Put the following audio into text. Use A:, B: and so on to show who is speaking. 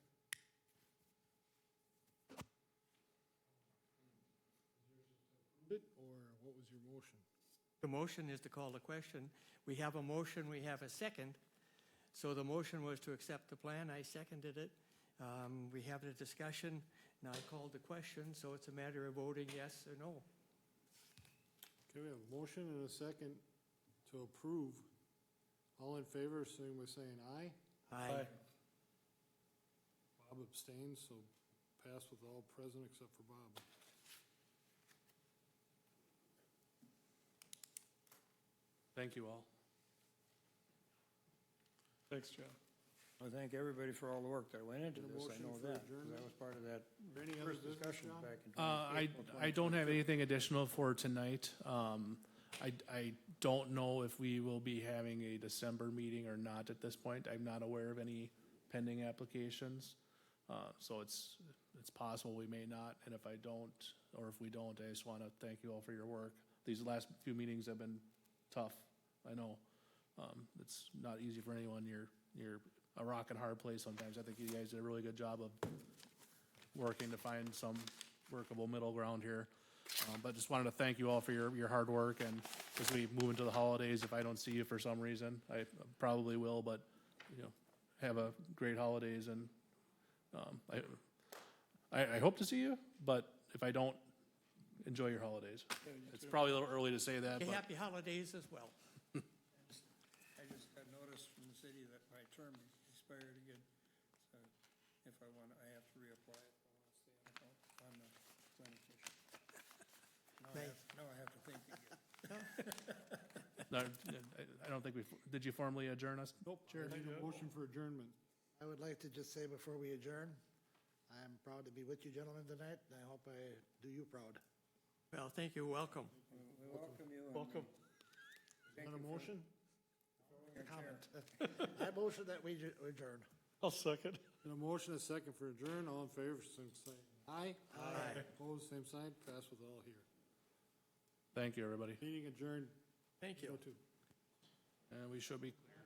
A: what was your motion?
B: The motion is to call the question. We have a motion, we have a second. So the motion was to accept the plan, I seconded it. Um, We have a discussion, and I called the question, so it's a matter of voting yes or no.
A: Okay, we have a motion and a second to approve. All in favor, saying by saying aye.
B: Aye.
A: Bob abstains, so pass with all present except for Bob.
C: Thank you all. Thanks, John.
D: I thank everybody for all the work that went into
A: Need a
D: this, I
A: motion
D: know that,
A: for
D: 'cause
A: adjournment?
D: that was part of that
A: Any other
D: first
A: business,
D: discussion
A: John?
D: back in
C: Uh, I,
D: 25th,
C: I don't have anything additional for tonight. Um, I, I don't know if we will be having a December meeting or not at this point. I'm not aware of any pending applications. Uh, so it's, it's possible we may not, and if I don't, or if we don't, I just wanna thank you all for your work. These last few meetings have been tough, I know. Um, it's not easy for anyone. You're, you're a rock and hard place sometimes. I think you guys did a really good job of working to find some workable middle ground here. Um, but just wanted to thank you all for your, your hard work and as we move into the holidays, if I don't see you for some reason, I probably will, but, you know, have a great holidays and, um, I, I, I hope to see you, but if I don't, enjoy your holidays. It's probably a little early to say that,
B: Okay,
C: but.
B: Happy holidays as well.
E: I just got notice from the city that my term expired again, so if I want, I have to reapply if I want to stay on the coun- on the planning commission. Now I
B: Right.
E: have- Now I have to think again.
C: No, I I don't think we, did you formally adjourn us? Nope.
A: I need a motion for adjournment.
F: I would like to just say before we adjourn, I am proud to be with you gentlemen tonight, and I hope I do you proud.
B: Well, thank you, welcome.
E: We welcome you and
B: Welcome.
E: thank
A: Want
E: you
A: a
E: for
A: motion?
E: holding your chair.
F: I motion that we adj- adjourn.
B: I'll second.
A: And a motion, a second for adjourn, all in favor, same sign. Aye.
B: Aye.
A: Opposed, same sign, pass with all here.
C: Thank you, everybody.
A: Meeting adjourned,
B: Thank you.
A: go to.
C: And we should be